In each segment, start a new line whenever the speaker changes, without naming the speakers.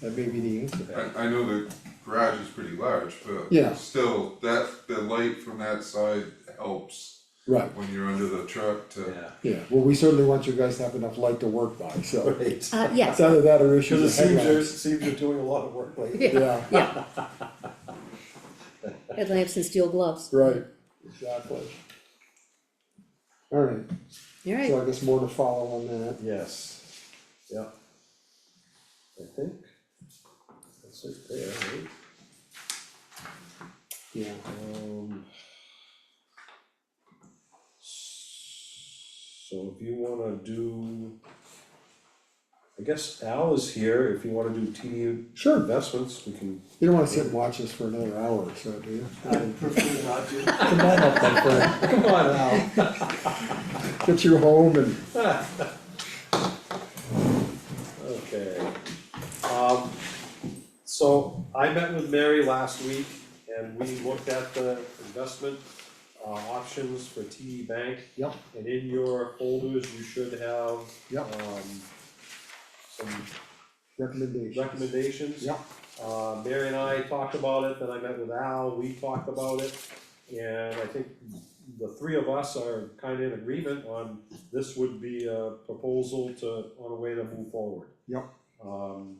That may be the answer.
I, I know the garage is pretty large, but
Yeah.
still, that, the light from that side helps
Right,
when you're under the truck to,
Yeah.
yeah, well, we certainly want you guys to have enough light to work by, so.
Right.
Uh, yes,
It's either that or
Cause
issue
it
the
seems you're,
headlights.
seems you're doing a lot of work lately.
yeah,
Yeah,
yeah. Headlamps and steel gloves,
right, exactly. Alright,
alright,
so I guess more to follow on that.
Yes, yeah. I think. That's it there, right?
Yeah,
Um. So if you wanna do. I guess Al is here, if you wanna do TD
sure,
investments, we can,
you don't wanna sit and watch us for another hour or so, do you?
prefer not to.
Come on up, my friend,
come on Al.
get you home and,
Okay, um, so I met with Mary last week and we looked at the investment uh options for TD Bank.
Yep.
And in your folders, you should have
Yep.
um some
recommendations.
recommendations.
Yep.
Uh, Mary and I talked about it, then I met with Al, we talked about it, and I think the three of us are kind of in agreement on this would be a proposal to, on a way to move forward.
Yep.
Um,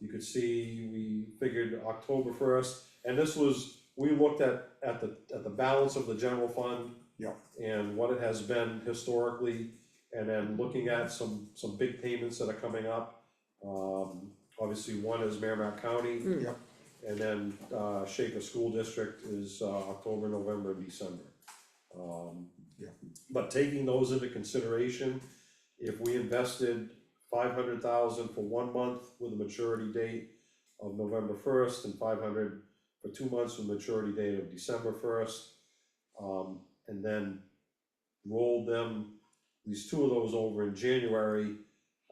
you could see, we figured October first, and this was, we looked at, at the, at the balance of the general fund.
Yep.
And what it has been historically, and then looking at some, some big payments that are coming up. Um, obviously, one is Merrimack County.
Mm.
Yep.
And then, uh, Shaker School District is, uh, October, November, and December. Um,
Yeah.
But taking those into consideration, if we invested five hundred thousand for one month with a maturity date of November first, and five hundred for two months with maturity date of December first, um, and then rolled them, at least two of those over in January,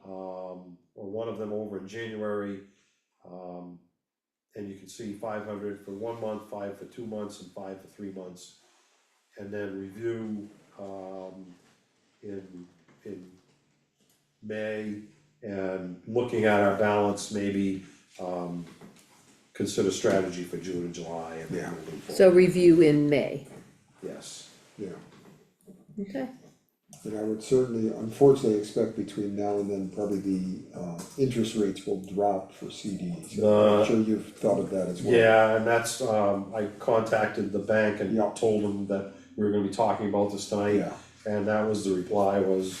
um, or one of them over in January. Um, and you can see five hundred for one month, five for two months, and five for three months. And then review, um, in, in May, and looking at our balance, maybe, um, consider strategy for June and July and
Yeah.
then moving forward.
so review in May,
Yes,
Yeah,
okay,
and I would certainly, unfortunately, expect between now and then, probably the, uh, interest rates will drop for CDs. I'm
Uh,
sure you've thought of that as well.
yeah, and that's, um, I contacted the bank and
Yeah.
told them that we were gonna be talking about this tonight.
Yeah,
And that was the reply was,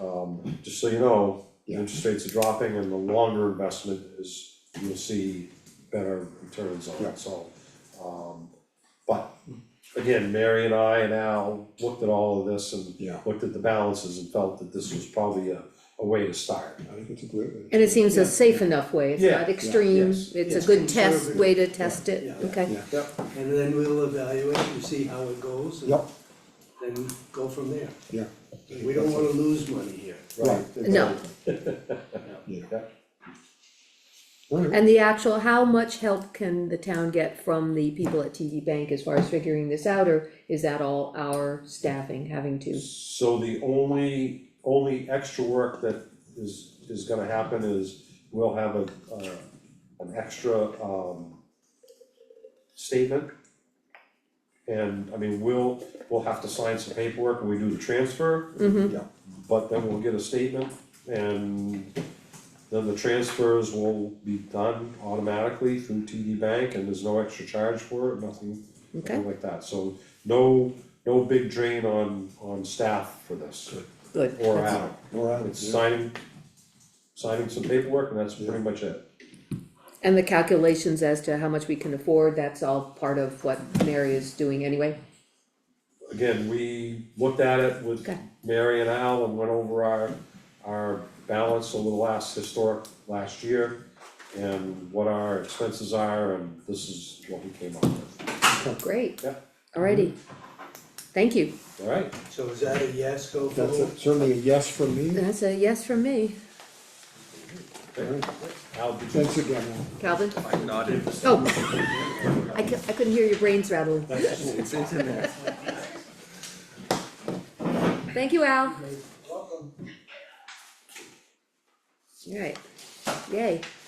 um, just so you know, the
Yeah.
interest rates are dropping and the longer investment is, you'll see better returns on
Yeah.
it, so. Um, but again, Mary and I and Al looked at all of this and
Yeah.
looked at the balances and felt that this was probably a, a way to start.
I think it's a great.
and it seems a
Yeah.
safe enough way, it's
Yeah,
not
yeah,
extreme,
yes,
it's
yes.
a good test,
Conservative.
way to test it,
Yeah, yeah,
okay,
yeah.
And then we'll evaluate and see how it goes and
Yep,
then go from there.
yeah.
We don't wanna lose money here.
Right.
No.
Yeah.
Yeah.
Alright,
And the actual, how much help can the town get from the people at TD Bank as far as figuring this out, or is that all our staffing having to?
So the only, only extra work that is, is gonna happen is we'll have a, uh, an extra, um, statement. And, I mean, we'll, we'll have to sign some paperwork when we do the transfer,
Mhm.
Yeah.
but then we'll get a statement and then the transfers will be done automatically through TD Bank and there's no extra charge for it, nothing,
Okay.
nothing like that. So no, no big drain on, on staff for this,
Good.
or
that's-
out.
alright,
It's
yeah.
signing, signing some paperwork and that's pretty much it.
And the calculations as to how much we can afford, that's all part of what Mary is doing anyway?
Again, we looked at it with
Okay.
Mary and Al and went over our, our balance over the last historic, last year and what our expenses are and this is what we came up with,
Great.
Yeah.
Alrighty. Thank you.
alright?
So is that a yes, go
That's a-
forward?
certainly a yes from me.
That's a yes from me.
Alright,
Al, did you
Thanks again, Al.
Calvin?
I nodded,
Oh. I cou- I couldn't hear your brains rattling.
it's, it's in there.
Thank you, Al. Alright, yay.